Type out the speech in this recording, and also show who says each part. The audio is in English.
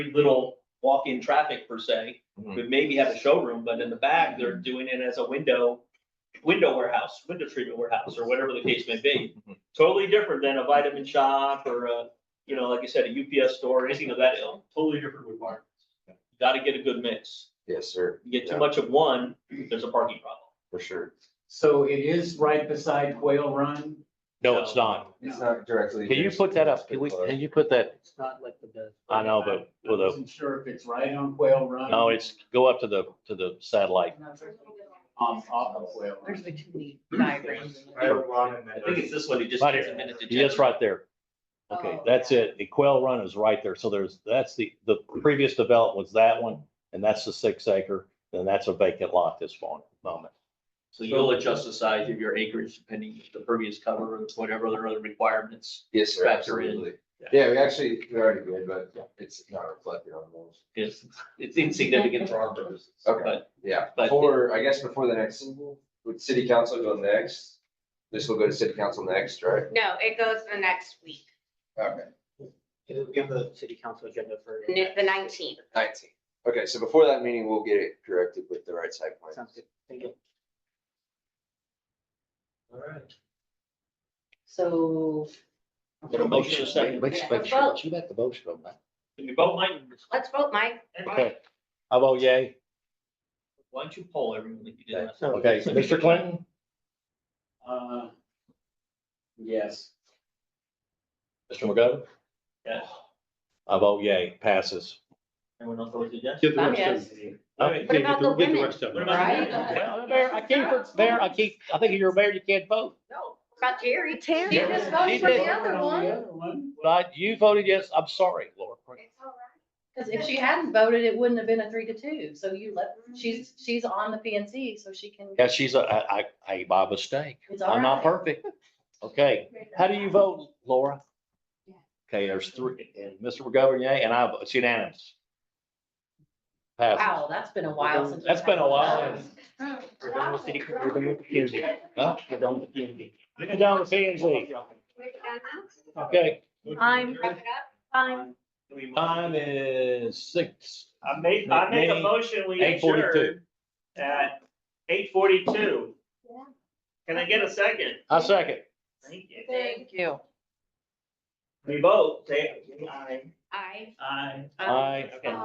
Speaker 1: very little walk-in traffic per se.
Speaker 2: Hmm.
Speaker 3: Mhm.
Speaker 1: Would maybe have a showroom, but in the back, they're doing it as a window, window warehouse, window treatment warehouse, or whatever the case may be.
Speaker 3: Mhm.
Speaker 1: Totally different than a vitamin shop or a, you know, like you said, a UPS store, anything of that ilk. Totally different requirements. Gotta get a good mix.
Speaker 3: Yes, sir,
Speaker 1: You get
Speaker 3: Yeah.
Speaker 1: too much of one, there's a parking problem.
Speaker 3: for sure.
Speaker 4: So it is right beside Quail Run?
Speaker 2: No, it's not.
Speaker 3: It's not directly.
Speaker 2: Can you put that up? Can we, can you put that,
Speaker 4: It's not like the best.
Speaker 2: I know, but
Speaker 4: I
Speaker 2: with a-
Speaker 4: wasn't sure if it's right on Quail Run.
Speaker 2: no, it's, go up to the, to the satellite.
Speaker 4: Um, off of Quail
Speaker 5: There's
Speaker 4: Run.
Speaker 5: the two neat diagrams.
Speaker 6: I have one and then.
Speaker 1: I think it's this one, it just
Speaker 2: Right
Speaker 1: takes a
Speaker 2: here.
Speaker 1: minute to check. Oh,
Speaker 2: Yes, right there. Okay, that's it. The Quail Run is right there. So there's, that's the, the previous development was that one, and that's the six acre, and that's a vacant lot this mo- moment.
Speaker 1: So you'll adjust the size of your acreage depending if the previous cover or whatever other other requirements.
Speaker 3: Yes, sir,
Speaker 1: factor in.
Speaker 3: absolutely. Yeah, we actually, we already did, but it's not reflected on those.
Speaker 1: It's, it's insignificant for our purposes.
Speaker 3: Okay.
Speaker 1: But
Speaker 3: Yeah,
Speaker 1: But-
Speaker 3: before, I guess before the next, would city council go next? This will go to city council next, right?
Speaker 7: No, it goes the next week,
Speaker 3: Okay.
Speaker 4: It'll give the city council agenda for.
Speaker 7: n- the nineteenth.
Speaker 3: Nineteen. Okay, so before that meeting, we'll get it corrected with the right side plan.
Speaker 4: Sounds good. Thank you.
Speaker 1: All right.
Speaker 5: So.
Speaker 1: Get a motion in a second.
Speaker 7: Make- make sure that
Speaker 2: you got the motion on that.
Speaker 1: Can you vote, Mike?
Speaker 7: Let's vote, Mike.
Speaker 2: Okay. I vote yay.
Speaker 1: Why don't you poll everyone that you did last? time?
Speaker 2: Okay, Mr. Clinton?
Speaker 4: Uh, Yes.
Speaker 2: Mr. McGovern?
Speaker 1: Yeah.
Speaker 2: I vote yay, passes.
Speaker 1: Everyone else voted yes?
Speaker 6: Get the
Speaker 7: I'm
Speaker 6: rest of it.
Speaker 1: Okay.
Speaker 7: What about the
Speaker 6: Get the
Speaker 7: women?
Speaker 6: rest of
Speaker 1: What
Speaker 6: it.
Speaker 1: about the
Speaker 7: Right.
Speaker 1: women?
Speaker 2: Well, Mayor, I can't, Mayor, I can't, I think if you're a mayor, you can't vote.
Speaker 1: No.
Speaker 7: About Terry.
Speaker 5: Terry.
Speaker 7: You just voted for the other one.
Speaker 2: But you voted yes, I'm sorry, Laura.
Speaker 7: It's all right.
Speaker 5: Because if she hadn't voted, it wouldn't have been a three to two. So you let,
Speaker 7: Mm-hmm.
Speaker 5: she's, she's on the PNC, so she can.
Speaker 2: Yeah, she's a, I, I, I- my mistake.
Speaker 5: It's all
Speaker 2: I'm not
Speaker 5: right.
Speaker 2: perfect. Okay, how do you vote, Laura? Okay, there's three, and Mr. McGovern, yay, and I, it's unanimous. Passes.
Speaker 5: Wow, that's been a while since. we've
Speaker 2: That's been a
Speaker 5: had
Speaker 2: while.
Speaker 5: those.
Speaker 6: We're done with city- we're done with the PNC.
Speaker 2: Huh?
Speaker 6: We're done with the PNC.
Speaker 2: Get down to P and Z. Okay,
Speaker 5: I'm-
Speaker 7: Wrap it up.
Speaker 5: Fine.
Speaker 2: time is six.
Speaker 8: I make, I make a
Speaker 2: May
Speaker 8: motion, we
Speaker 2: Eight forty-two.
Speaker 8: adjourn at eight forty-two. Can I get a second?
Speaker 2: I second.
Speaker 8: Thank you.
Speaker 5: Thank you.
Speaker 8: We vote, say, aye,
Speaker 7: Aye.
Speaker 8: aye.
Speaker 2: Aye.
Speaker 8: Okay.